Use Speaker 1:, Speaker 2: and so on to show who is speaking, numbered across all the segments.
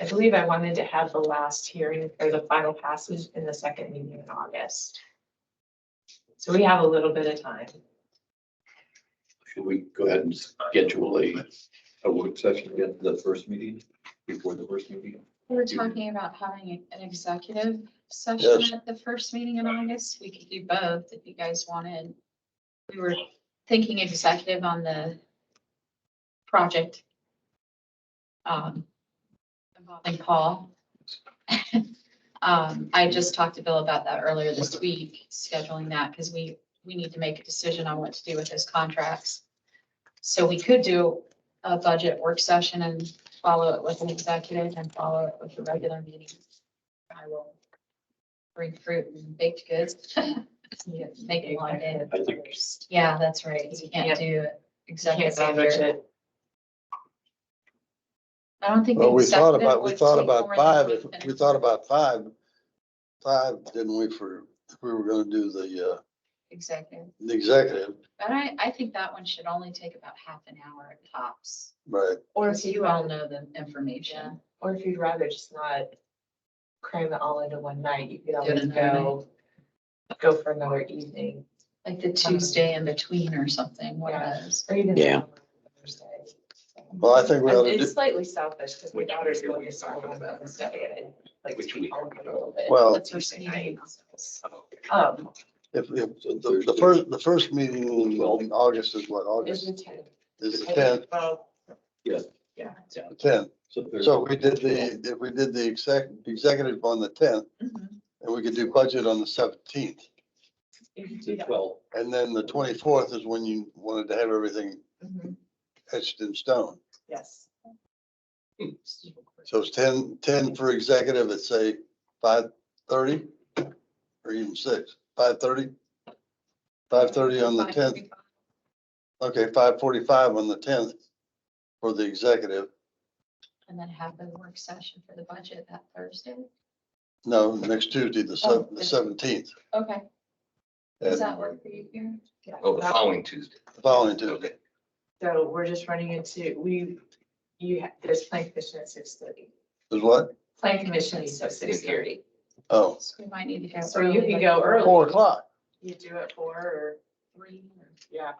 Speaker 1: I believe I wanted to have the last hearing or the final passage in the second meeting in August. So we have a little bit of time.
Speaker 2: Should we go ahead and schedule a, a work session at the first meeting, before the first meeting?
Speaker 3: We were
Speaker 2: Mhm.
Speaker 3: talking about having an executive session
Speaker 2: Yes.
Speaker 3: at the first meeting in August. We could do both if you guys wanted. We were thinking executive on the project. um, Involving Paul. Um, I just talked to Bill about that earlier this week, scheduling that because we, we need to make a decision on what to do with those contracts. So we could do a budget work session and follow it with an executive and follow it with a regular meeting. I will bring fruit and baked goods. Yeah, Make it one day.
Speaker 2: I think-
Speaker 3: Yeah, that's right. 'cause You can't do
Speaker 1: Can't
Speaker 3: executive.
Speaker 1: say
Speaker 3: under-
Speaker 1: budget.
Speaker 3: I don't think. the
Speaker 4: Well, we thought
Speaker 3: executive
Speaker 4: about, we
Speaker 3: would
Speaker 4: thought
Speaker 3: take
Speaker 4: about
Speaker 3: more than
Speaker 4: five,
Speaker 3: we
Speaker 4: if-
Speaker 3: can-
Speaker 4: we thought about five, five, didn't we, for, if we were gonna do the, uh,
Speaker 3: Executive.
Speaker 4: the executive,
Speaker 3: But I, I think that one should only take about half an hour at tops.
Speaker 4: right?
Speaker 1: Or if
Speaker 3: Because
Speaker 1: you
Speaker 3: you all
Speaker 1: all,
Speaker 3: know the information.
Speaker 1: or if you'd rather just not cram it all into one night, you could
Speaker 3: Do it
Speaker 1: always
Speaker 3: another
Speaker 1: go, go for another evening.
Speaker 3: Like the Tuesday in between or something, one
Speaker 1: Yeah.
Speaker 3: of those.
Speaker 1: Or even.
Speaker 5: Yeah.
Speaker 1: Thursday.
Speaker 4: Well, I think we ought to
Speaker 1: It's
Speaker 4: do,
Speaker 1: slightly selfish because my
Speaker 2: Which
Speaker 1: daughter's
Speaker 2: week are
Speaker 1: going
Speaker 2: we
Speaker 1: to school
Speaker 2: talking
Speaker 1: on
Speaker 2: about?
Speaker 1: Wednesday and like
Speaker 2: Which
Speaker 1: to be
Speaker 2: week?
Speaker 1: home for a little bit.
Speaker 4: Well-
Speaker 1: That's Thursday night. Um,
Speaker 4: if, if, the, the first, the first meeting in in August is what,
Speaker 1: it's
Speaker 4: August
Speaker 1: the tenth.
Speaker 4: is the tenth,
Speaker 1: Well,
Speaker 2: Yes.
Speaker 1: yeah.
Speaker 4: the tenth.
Speaker 2: So there's-
Speaker 4: So we did the, if we did the exec, executive on the tenth,
Speaker 3: Mm-hmm.
Speaker 1: Mhm.
Speaker 4: and we could do budget on the seventeenth.
Speaker 1: You could do
Speaker 2: the
Speaker 1: that.
Speaker 2: Twelve,
Speaker 4: And then the twenty-fourth is when you wanted to have everything
Speaker 1: Mhm.
Speaker 4: etched in stone.
Speaker 1: Yes.
Speaker 4: So it's 10 10 for executive at say five thirty or even six, five thirty? Five thirty on the tenth, okay, five forty-five on the tenth for the executive.
Speaker 3: And then have the work session for the budget that Thursday.
Speaker 4: No, next Tuesday, the
Speaker 3: Oh,
Speaker 4: sev- the seventeenth,
Speaker 3: Okay, does
Speaker 4: the
Speaker 3: that work for you here?
Speaker 1: Yeah.
Speaker 6: Oh, the following Tuesday.
Speaker 4: following Tuesday.
Speaker 6: Okay.
Speaker 1: So we're just running into, we, you, ha- there's planning commission at six thirty.
Speaker 4: Is what?
Speaker 1: Planning commission is at six thirty.
Speaker 4: Oh,
Speaker 3: So we might need to go.
Speaker 1: So you
Speaker 3: early,
Speaker 1: could
Speaker 3: like
Speaker 1: go early.
Speaker 4: four o'clock.
Speaker 1: You do it four or,
Speaker 3: three or-
Speaker 1: yeah,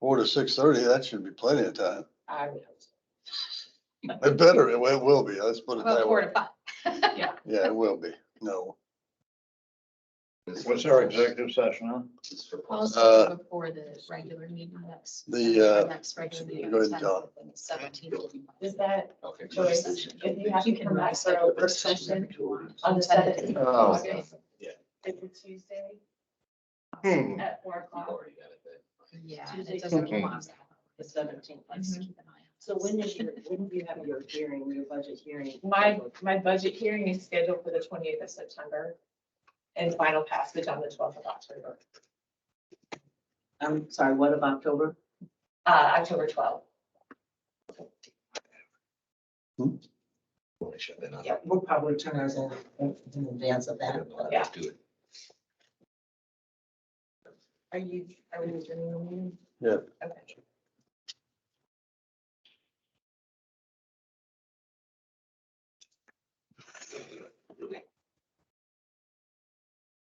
Speaker 4: Four to six thirty, that should be plenty of time.
Speaker 1: I would. hope so.
Speaker 4: It better, it will be, let's put it
Speaker 3: Well,
Speaker 4: that
Speaker 3: four
Speaker 4: way.
Speaker 3: to five.
Speaker 4: Yeah, it will be. No,
Speaker 6: What's our executive?
Speaker 7: session on?
Speaker 3: Also before the regular meeting, that's.
Speaker 4: Uh, the, uh,
Speaker 3: Next regular meeting.
Speaker 4: go ahead, John.
Speaker 3: Seventeenth.
Speaker 1: Is that
Speaker 6: Okay.
Speaker 1: choice, if you have to come back for a work session on the seventeenth of
Speaker 4: Oh.
Speaker 1: August?
Speaker 2: Yeah.
Speaker 1: It's a Tuesday
Speaker 6: Hmm.
Speaker 1: at four
Speaker 6: You've
Speaker 1: o'clock.
Speaker 6: already got it then.
Speaker 3: Yeah. and
Speaker 1: Tuesday,
Speaker 3: it doesn't
Speaker 6: seventeenth.
Speaker 3: belong that long.
Speaker 8: the seventeenth.
Speaker 3: Let's keep
Speaker 1: Mm-hmm.
Speaker 3: an eye on
Speaker 8: So when is your, when do you have your hearing, your budget hearing?
Speaker 1: My, my budget hearing is scheduled for the twentieth of September and final passage on the twelfth of October,
Speaker 8: I'm sorry, what of October?
Speaker 1: uh, October twelfth.
Speaker 6: Well, they should, they're not-
Speaker 8: Yeah, we'll probably turn ours in, in advance of
Speaker 6: I
Speaker 8: that.
Speaker 6: don't know how
Speaker 1: Yeah.
Speaker 6: to do it.
Speaker 1: Are you, are we doing?
Speaker 4: Yeah.
Speaker 1: Okay.